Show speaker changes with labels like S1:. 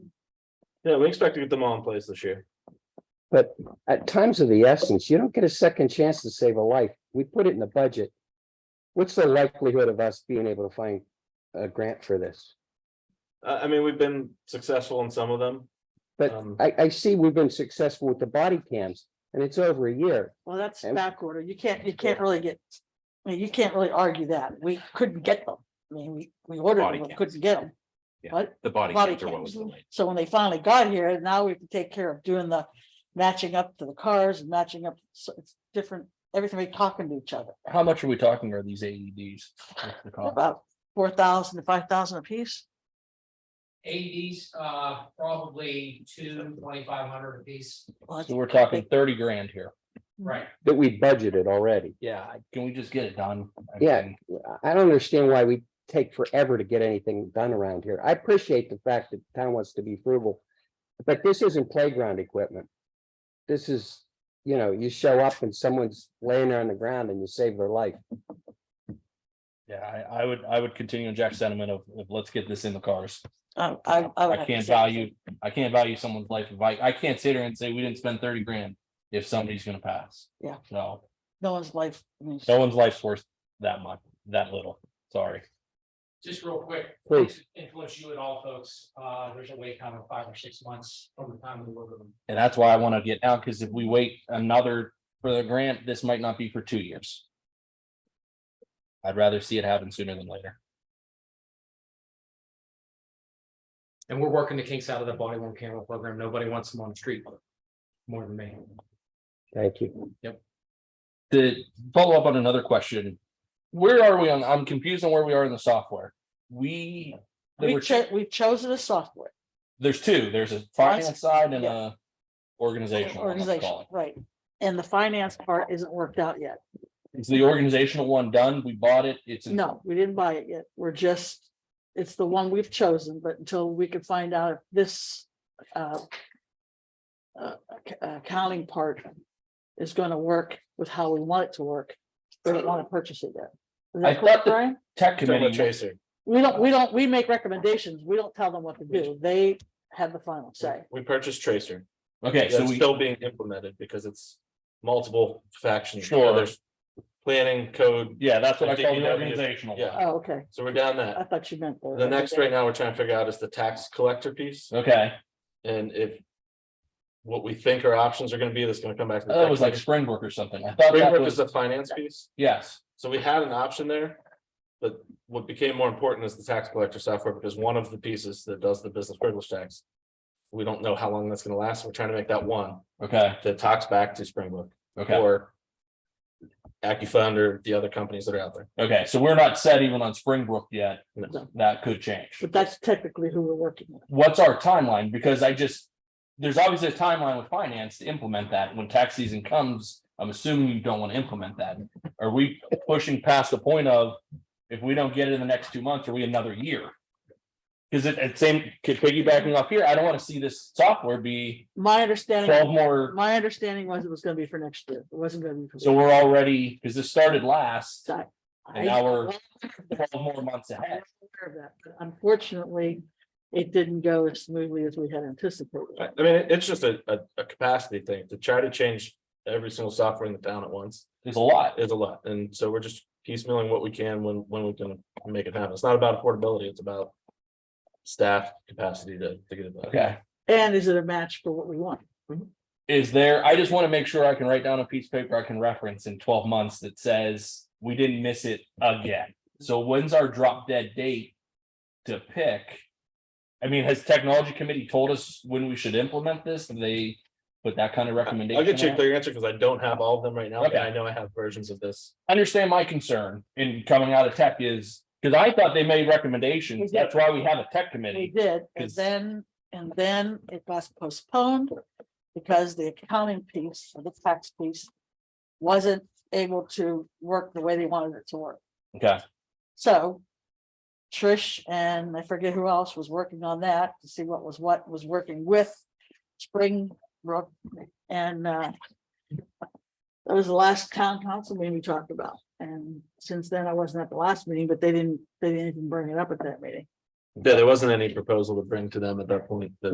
S1: Yeah, we expect to get them all in place this year.
S2: At times of the essence, you don't get a second chance to save a life. We put it in the budget. What's the likelihood of us being able to find a grant for this?
S1: I, I mean, we've been successful in some of them.
S2: But
S1: Um,
S2: I, I see we've been successful with the body cams and it's over a year.
S3: Well, that's
S2: And-
S3: back order. You can't, you can't really get, I mean, you can't really argue that. We couldn't get them. I mean, we, we ordered
S4: Body
S3: them, but
S4: cams.
S3: couldn't get them.
S4: Yeah.
S3: But,
S4: The body
S3: Body
S4: cams are what
S3: cams.
S4: was delayed.
S3: so when they finally got here, now we have to take care of doing the matching up to the cars and matching up, so it's different, everything we talking to each other.
S5: How much are we talking are these AEDs? What's the cost?
S3: About four thousand to five thousand apiece.
S6: Eighties, uh, probably two twenty-five hundred apiece,
S3: Well, that's
S5: So we're
S3: pretty
S5: talking
S3: big.
S5: thirty grand here.
S6: right?
S2: That we budgeted already.
S5: Yeah, I- can we just get it done? I
S2: Yeah.
S5: mean,
S2: I- I don't understand why we take forever to get anything done around here. I appreciate the fact that town wants to be frugal. But this isn't playground equipment. This is, you know, you show up and someone's laying there on the ground and you save their life.
S5: Yeah, I, I would, I would continue on Jack's sentiment of, of let's get this in the cars.
S3: I, I. I would
S5: I
S3: have to
S5: can't
S3: say-
S5: value, I can't value someone's life. If I, I can't sit here and say we didn't spend thirty grand if somebody's gonna pass.
S3: Yeah.
S5: So
S3: No one's life. I mean,
S5: no one's life's worth that much, that little. Sorry.
S6: Just real quick.
S2: Please.
S6: Influence you and all folks, uh, there's a wait time of five or six months from the time we order them.
S5: And that's why I want to get now, because if we wait another for the grant, this might not be for two years. I'd rather see it happen sooner than later.
S6: And we're working the kinks out of the body worn camera program. Nobody wants them on the street. More than me.
S2: Thank you.
S5: The follow up on another question. Where are we on, I'm confused on where we are in the software. We, there
S3: We
S5: were,
S3: chose, we chosen a software
S5: there's two, there's a finance side and a organizational. one, let's
S3: organization,
S5: call
S3: right? And the finance part isn't worked out yet.
S5: it. Is the organizational one done? We bought it, it's. in-
S3: No, we didn't buy it yet. We're just, it's the one we've chosen, but until we can find out if this uh, uh, ac- accounting part is gonna work with how we want it to work, we don't want to purchase it yet. Is that
S5: I thought
S3: correct,
S5: that-
S3: Brian?
S5: Tech
S1: Talking about
S5: committee,
S1: Tracer,
S3: We don't, we don't, we make recommendations. We don't tell them what to do. They have the final say.
S1: we purchased Tracer.
S5: okay, so
S1: It's
S5: we,
S1: still being implemented because it's multiple factions.
S5: Sure.
S1: So There's Planning code,
S5: yeah, that's what I
S1: I think
S5: call
S1: you
S5: the
S1: know, you-
S5: organizational.
S1: yeah.
S3: Oh, okay.
S1: so we're down
S3: I
S1: that.
S3: thought you meant.
S1: The next right now we're trying to figure out is the tax collector piece
S5: Okay,
S1: and if what we think our options are gonna be, that's gonna come back. to the
S5: that Oh, was like
S1: tax
S5: Springbrook or something. I thought that
S1: Springbrook is
S5: was,
S1: the finance piece.
S5: yes.
S1: So we had an option there. But what became more important is the tax collector software, because one of the pieces that does the business privilege tax. We don't know how long that's gonna last. We're trying to make that one
S5: Okay,
S1: that talks back to Springbrook
S5: okay,
S1: or. AccuFund or the other companies that are out there.
S5: okay. So we're not set even on Springbrook yet.
S1: No.
S5: That could change.
S3: But that's technically who we're working with.
S5: What's our timeline? Because I just, there's obviously a timeline with finance to implement that. When tax season comes, I'm assuming you don't want to implement that. Are we pushing past the point of if we don't get it in the next two months, are we another year? Because it, it same, piggybacking off here, I don't want to see this software be
S3: My understanding.
S5: twelve more.
S3: My understanding was it was gonna be for next year. It wasn't gonna be. for
S5: So we're already, because this started last,
S3: So I-
S5: and now we're
S3: I-
S5: twelve more months
S3: I'm
S5: ahead.
S3: aware of that, but Unfortunately, it didn't go as smoothly as we had anticipated.
S1: I I mean, it- it's just a, a, a capacity thing to try to change every single software in the town at once
S5: There's a lot.
S1: is a lot. And so we're just piecemealing what we can when, when we can make it happen. It's not about affordability, it's about. Staff capacity to, to get it. done.
S5: Okay.
S3: And is it a match for what we want?
S5: is there, I just want to make sure I can write down a piece of paper I can reference in twelve months that says we didn't miss it again. So when's our drop dead date to pick? I mean, has technology committee told us when we should implement this? Have They put that kind of recommendation.
S1: I'll get you a
S5: out?
S1: clear answer because I don't have all of them right now, but
S5: Okay.
S1: I know I have versions of this.
S5: Understand my concern in coming out of tech is, because I thought they made
S3: We
S5: recommendations.
S3: did.
S5: That's why we have a tech
S3: We
S5: committee.
S3: did, and
S5: 'Cause-
S3: then, and then it got postponed because the accounting piece, or the tax piece wasn't able to work the way they wanted it to work.
S5: Okay,
S3: So Trish and I forget who else was working on that to see what was what was working with Springbrook and uh that was the last town council meeting we talked about. And since then, I wasn't at the last meeting, but they didn't, they didn't even bring it up at that meeting.
S1: Yeah, there wasn't any proposal to bring to them at that point that